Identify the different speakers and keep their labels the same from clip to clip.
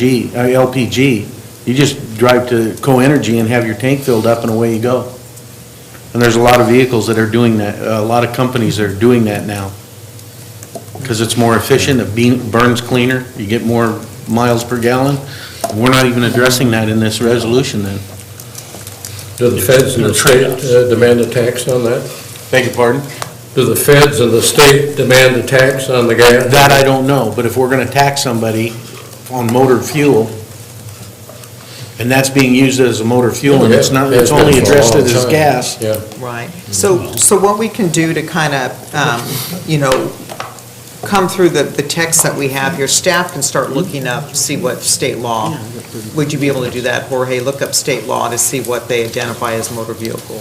Speaker 1: G, uh, LPG. You just drive to Co-Energy and have your tank filled up and away you go. And there's a lot of vehicles that are doing that, uh, a lot of companies that are doing that now. Because it's more efficient, it bean- burns cleaner, you get more miles per gallon. We're not even addressing that in this resolution then.
Speaker 2: Do the feds and the state uh, demand a tax on that?
Speaker 1: Beg your pardon?
Speaker 2: Do the feds and the state demand a tax on the gas?
Speaker 1: That I don't know, but if we're gonna tax somebody on motor fuel, and that's being used as a motor fuel, and it's not, it's only addressed it as gas,
Speaker 2: Yeah,
Speaker 3: Right. So, so what we can do to kind of, um, you know, come through the, the text that we have, your staff can start looking up, see what state law, would you be able to do that, Jorge? Look up state law to see what they identify as motor vehicle.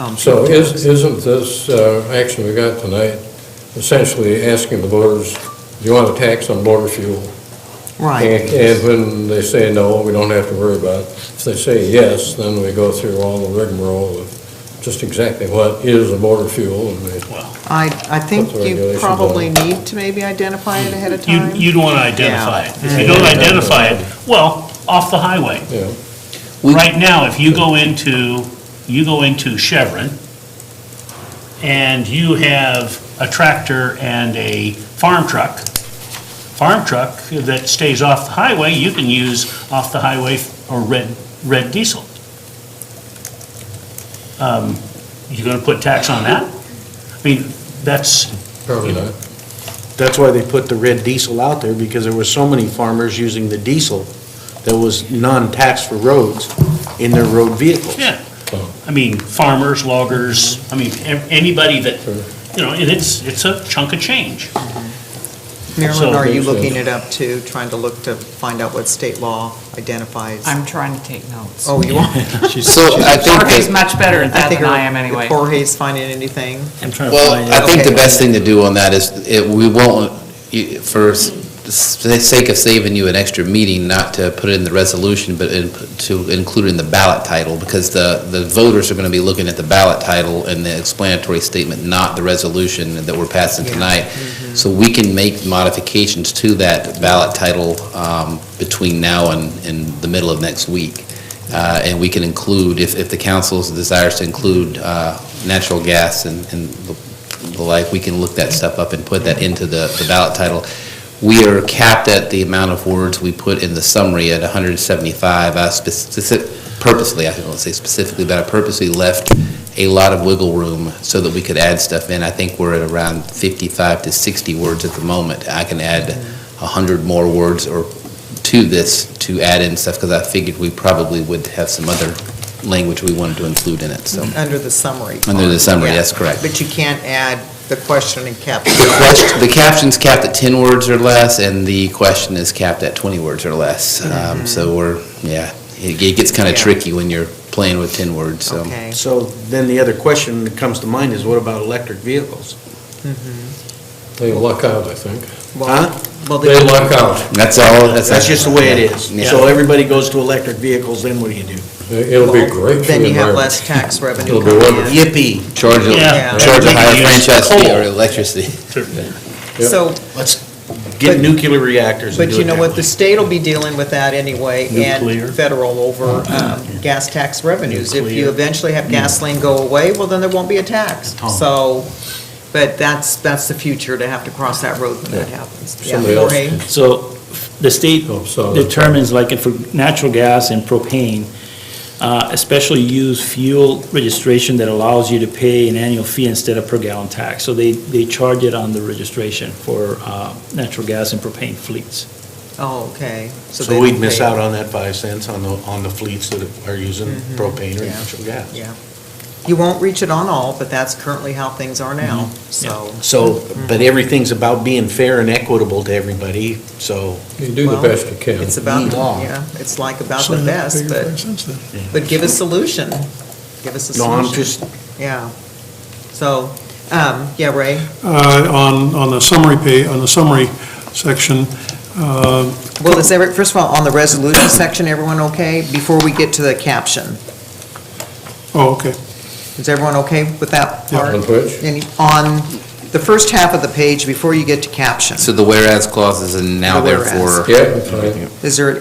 Speaker 3: um,
Speaker 2: so is, isn't this uh, action we got tonight essentially asking the voters, do you want a tax on motor fuel?
Speaker 3: Right,
Speaker 2: And and when they say no, we don't have to worry about it. If they say yes, then we go through all the rigmarole of just exactly what is a motor fuel and we
Speaker 3: I, I think
Speaker 2: Put the
Speaker 3: you
Speaker 2: regulations on.
Speaker 3: probably need to maybe identify it ahead of
Speaker 4: You,
Speaker 3: time.
Speaker 4: you'd want to identify it. If you don't identify it, well, off the highway.
Speaker 2: Yeah.
Speaker 5: We-
Speaker 4: Right now, if you go into, you go into Chevron, and you have a tractor and a farm truck, farm truck that stays off the highway, you can use off the highway or red, red diesel. Um, You going to put tax on that? I mean, that's,
Speaker 2: Probably not.
Speaker 1: that's why they put the red diesel out there, because there were so many farmers using the diesel that was non-taxed for roads in their road vehicles.
Speaker 4: Yeah, I mean, farmers, loggers, I mean, a- anybody that, you know, and it's, it's a chunk of change.
Speaker 3: Marilyn,
Speaker 4: So-
Speaker 3: are you looking it up too, trying to look to find out what state law identifies?
Speaker 6: I'm trying to take notes.
Speaker 3: Oh, you are?
Speaker 5: So I think,
Speaker 6: Jorge's
Speaker 5: that-
Speaker 6: much better at that
Speaker 3: think
Speaker 6: than I am
Speaker 3: if
Speaker 6: anyway.
Speaker 3: Jorge's finding anything.
Speaker 5: well, I think the
Speaker 3: Okay.
Speaker 5: best thing to do on that is, it- we won't, you- for s- the sake of saving you an extra meeting, not to put it in the resolution, but in- to include it in the ballot title, because the, the voters are going to be looking at the ballot title and the explanatory statement, not the resolution that we're passing
Speaker 3: Yeah. Mm-hmm.
Speaker 5: tonight. So we can make modifications to that ballot title um, between now and, and the middle of next week. Uh, And we can include, if, if the council desires to include uh, natural gas and, and the like, we can look that stuff up and put that into the the ballot title. We are capped at the amount of words we put in the summary at 175. I specific, purposely, I don't say specifically, but I purposely left a lot of wiggle room so that we could add stuff in. I think we're at around 55 to 60 words at the moment. I can add 100 more words or to this to add in stuff, because I figured we probably would have some other language we wanted to include in it, so.
Speaker 3: Under the summary.
Speaker 5: Under the summary,
Speaker 3: Yeah.
Speaker 5: that's correct.
Speaker 3: But you can't add the question and caption.
Speaker 5: The quest- the caption's capped at 10 words or less, and the question is capped at 20 words or less.
Speaker 1: Mm-hmm.
Speaker 5: Um, So we're, yeah, it it gets kind of
Speaker 3: Yeah.
Speaker 5: tricky when you're playing with 10 words, so.
Speaker 3: Okay.
Speaker 1: So then the other question that comes to mind is what about electric vehicles?
Speaker 2: They luck out, I think.
Speaker 1: Huh?
Speaker 3: Well, the-
Speaker 2: They luck out.
Speaker 5: That's all, that's.
Speaker 1: That's just the way it is.
Speaker 5: Yeah.
Speaker 1: So everybody goes to electric vehicles, then what do you do?
Speaker 2: It'll be great for
Speaker 3: Then
Speaker 2: the
Speaker 3: you have
Speaker 2: environment.
Speaker 3: less tax revenue
Speaker 2: It'll be
Speaker 3: coming
Speaker 2: wonderful.
Speaker 3: in.
Speaker 1: Yippee.
Speaker 5: Charge, a-
Speaker 4: Yeah.
Speaker 5: charge a higher
Speaker 4: Yeah.
Speaker 5: franchise fee or
Speaker 4: Coal.
Speaker 5: electricity.
Speaker 2: Yeah.
Speaker 3: So,
Speaker 1: Let's get nuclear reactors and
Speaker 3: but
Speaker 1: do
Speaker 3: you
Speaker 1: it
Speaker 3: know
Speaker 1: that
Speaker 3: what,
Speaker 1: way.
Speaker 3: the state will be dealing with that anyway,
Speaker 4: Nuclear.
Speaker 3: and federal over um, gas tax revenues. If you
Speaker 4: Nuclear. Mm.
Speaker 3: eventually have gasoline go away, well, then there won't be a tax. So, but that's, that's the future, to have to cross that road when that happens. Yeah,
Speaker 2: Somebody else-
Speaker 3: Jorge?
Speaker 7: So the state
Speaker 2: Oh, so-
Speaker 7: determines, like for natural gas and propane, uh, especially used fuel registration that allows you to pay an annual fee instead of per gallon tax. So they, they charge it on the registration for uh, natural gas and propane fleets.
Speaker 3: Oh, okay. they
Speaker 1: So we'd
Speaker 3: don't
Speaker 1: miss
Speaker 3: pay.
Speaker 1: out on that five cents on the, on the fleets that are using propane or
Speaker 3: Mm-hmm. Yeah.
Speaker 1: natural gas.
Speaker 3: Yeah. You won't reach it on all, but that's currently how things are now,
Speaker 4: Mm-hmm.
Speaker 3: so.
Speaker 1: So, but everything's about being fair and equitable to everybody, so.
Speaker 2: You do the
Speaker 3: well,
Speaker 2: best you can.
Speaker 3: It's about, the-
Speaker 1: Law.
Speaker 3: yeah, it's like about the best, but, but give a solution. Give us a
Speaker 1: No, I'm
Speaker 3: solution,
Speaker 1: just,
Speaker 3: yeah. So, um, yeah, Ray,
Speaker 8: Uh, on, on the summary pay, on the summary section, uh,
Speaker 3: well, is every, first of all, on the resolution section, everyone okay? Before we get to the caption,
Speaker 8: oh, okay.
Speaker 3: is everyone okay with that
Speaker 8: Yeah.
Speaker 3: part?
Speaker 2: On which?
Speaker 3: Any- On the first half of the page, before you get to caption,
Speaker 5: So the whereas clauses and now
Speaker 3: The whereas.
Speaker 5: therefore.
Speaker 2: Yeah, I'm fine.
Speaker 3: is there